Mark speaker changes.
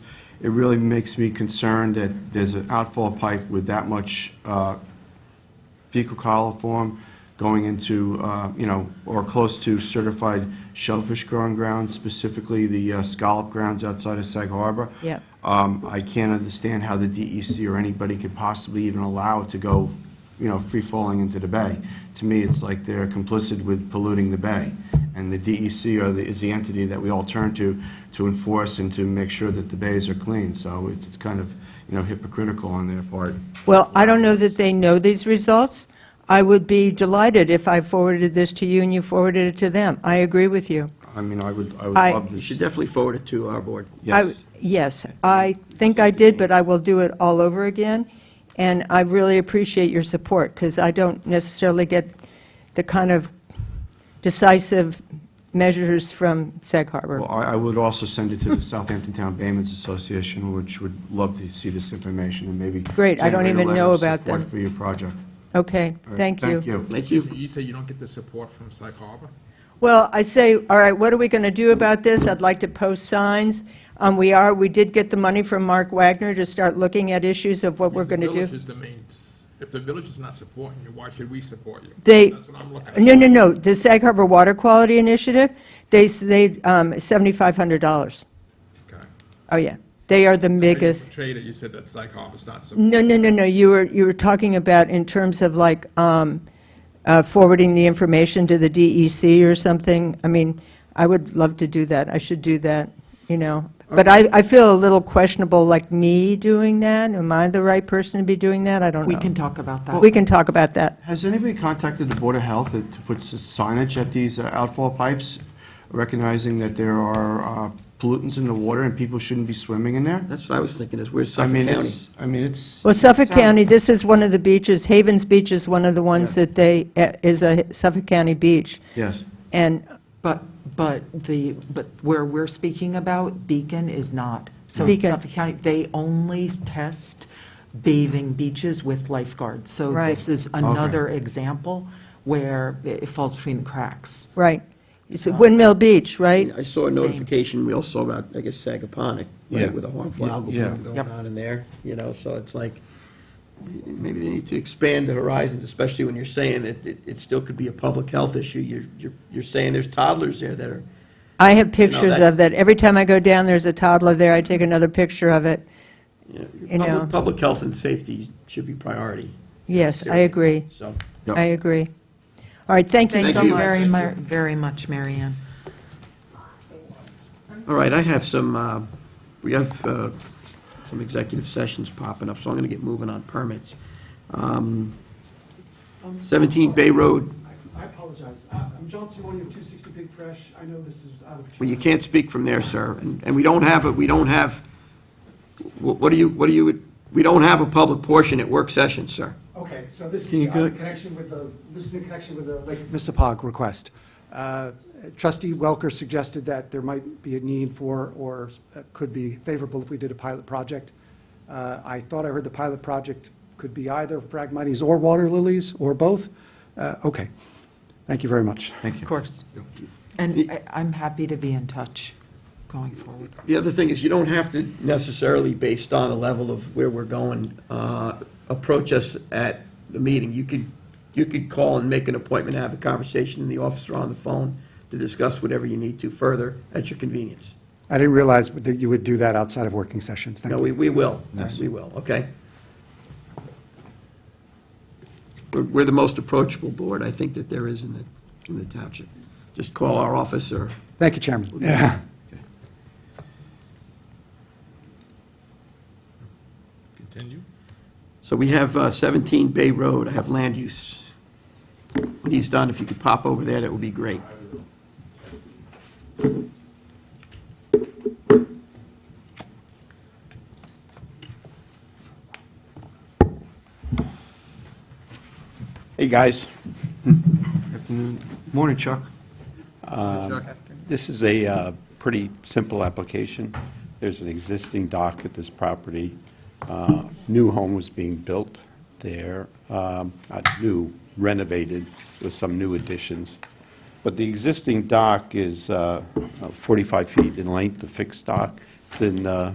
Speaker 1: it really makes me concerned that there's an outfall pipe with that much uh, fecal coliform going into, uh, you know, or close to certified shellfish growing grounds, specifically the uh, scallop grounds outside of Sag Harbor.
Speaker 2: Yep.
Speaker 1: Um, I can't understand how the DEC or anybody could possibly even allow it to go, you know, free-falling into the bay. To me, it's like they're complicit with polluting the bay. And the DEC are the, is the entity that we all turn to, to enforce and to make sure that the bays are clean. So it's, it's kind of, you know, hypocritical on their part.
Speaker 2: Well, I don't know that they know these results. I would be delighted if I forwarded this to you and you forwarded it to them. I agree with you.
Speaker 1: I mean, I would, I would
Speaker 2: I-
Speaker 1: love
Speaker 3: You
Speaker 1: this.
Speaker 3: should definitely forward it to our board.
Speaker 2: I-
Speaker 1: Yes.
Speaker 2: Yes, I think I did, but I will do it all over again, and I really appreciate your support, because I don't necessarily get the kind of decisive measures from Sag Harbor.
Speaker 1: Well, I I would also send it to the Southampton Town Baymen's Association, which would love to see this information and maybe.
Speaker 2: Great, I don't
Speaker 1: generate a
Speaker 2: even
Speaker 1: letter
Speaker 2: know
Speaker 1: of
Speaker 2: about
Speaker 1: support
Speaker 2: them.
Speaker 1: For your project.
Speaker 2: Okay,
Speaker 1: All right,
Speaker 2: thank you.
Speaker 1: Thank you.
Speaker 3: Thank
Speaker 4: So
Speaker 3: you.
Speaker 4: you say you don't get the support from Sag Harbor?
Speaker 2: Well, I say, all right, what are we going to do about this? I'd like to post signs. Um, We are, we did get the money from Mark Wagner to start looking at issues of what we're going to
Speaker 4: The
Speaker 2: do.
Speaker 4: village is the main, s- if the village is not supporting you, why should we support you?
Speaker 2: They,
Speaker 4: That's what I'm looking at.
Speaker 2: no, no, no, the Sag Harbor Water Quality Initiative, they, s- they, um, $7,500.
Speaker 4: Okay.
Speaker 2: Oh, yeah, they are the
Speaker 4: But you
Speaker 2: biggest.
Speaker 4: portrayed it, you said that Sag Harbor's not supporting.
Speaker 2: No, no, no, no, you were, you were talking about in terms of like um, uh, forwarding the information to the DEC or something. I mean, I would love to do that, I should do that, you know. But I, I feel a little questionable, like me doing that, am I the right person to be doing that? I don't know.
Speaker 5: We can talk about that.
Speaker 2: We can talk about that.
Speaker 1: Has anybody contacted the Board of Health to put s- signage at these uh, outfall pipes, recognizing that there are uh, pollutants in the water and people shouldn't be swimming in there?
Speaker 3: That's what I was thinking, is where's
Speaker 1: I
Speaker 3: Suffolk
Speaker 1: mean,
Speaker 3: County?
Speaker 1: it's, I mean, it's.
Speaker 2: Well, Suffolk
Speaker 1: it's out-
Speaker 2: County, this is one of the beaches, Havens Beach is one of the ones
Speaker 1: Yeah.
Speaker 2: that they, eh, is a Suffolk County beach.
Speaker 1: Yes.
Speaker 2: And,
Speaker 5: But, but the, but where we're speaking about, Beacon is not. So
Speaker 2: Beacon.
Speaker 5: Suffolk County, they only test bathing beaches with lifeguards. So
Speaker 2: Right.
Speaker 5: this is another example where it it falls between the cracks.
Speaker 2: right, it's Windmill Beach, right?
Speaker 3: I saw a
Speaker 5: Same.
Speaker 3: notification, we all saw about, I guess, Sagaponic,
Speaker 1: Yeah.
Speaker 3: right, with a harmful algal
Speaker 1: Yeah.
Speaker 3: bloom going on in there, you know, so it's like, maybe they need to expand the horizons, especially when you're saying that it, it still could be a public health issue. You're, you're, you're saying there's toddlers there that are,
Speaker 2: I have pictures
Speaker 3: that-
Speaker 2: of that. Every time I go down, there's a toddler there, I take another picture of it.
Speaker 3: you know, your
Speaker 2: You know.
Speaker 3: public, public health and safety should be priority.
Speaker 2: Yes, I
Speaker 3: Seriously.
Speaker 2: agree,
Speaker 3: So,
Speaker 1: Yep.
Speaker 2: I agree. All right, thank you
Speaker 5: Thank
Speaker 2: so
Speaker 5: you
Speaker 2: much.
Speaker 5: very, mu- very much, Mary Ann.
Speaker 3: all right, I have some, uh, we have, uh, some executive sessions popping up, so I'm gonna get moving on permits. Um, Seventeen Bay Road,
Speaker 6: I apologize. Uh, I'm John Simone of 260 Big Fresh. I know this is out of.
Speaker 3: Well, you can't speak from there, sir, and, and we don't have, a we don't have, wh- what do you, what do you, we don't have a public portion at work session, sir.
Speaker 6: Okay, so this
Speaker 1: Can you
Speaker 6: is
Speaker 1: go-
Speaker 6: uh, connection with the, this is in connection with the Lake Missapog request. Uh, Trustee Welker suggested that there might be a need for, or uh, could be favorable if we did a pilot project. Uh, I thought I heard the pilot project could be either Phragmites or water lilies, or both. Uh, Okay, thank you very much.
Speaker 1: Thank you.
Speaker 5: Of course. And I- I'm happy to be in touch going forward.
Speaker 3: The other thing is, you don't have to necessarily, based on the level of where we're going, uh, approach us at the meeting. You could, you could call and make an appointment, have a conversation in the office or on the phone to discuss whatever you need to further at your convenience.
Speaker 6: I didn't realize that you would do that outside of working sessions. Thank
Speaker 3: No,
Speaker 6: you.
Speaker 3: we, we will. We will, okay? We're, we're the most approachable board, I think, that there is in the, in the township. Just call our office or,
Speaker 6: Thank you, Chairman. Yeah.
Speaker 4: Continue.
Speaker 3: so we have uh, 17 Bay Road, I have land use. He's done, if you could pop over there, that would be great.
Speaker 7: Hey, guys.
Speaker 1: Afternoon. Morning, Chuck.
Speaker 7: This is a uh, pretty simple application. There's an existing dock at this property. Uh, New home was being built there, um, not new, renovated with some new additions. But the existing dock is uh, 45 feet in length, the fixed dock, then uh,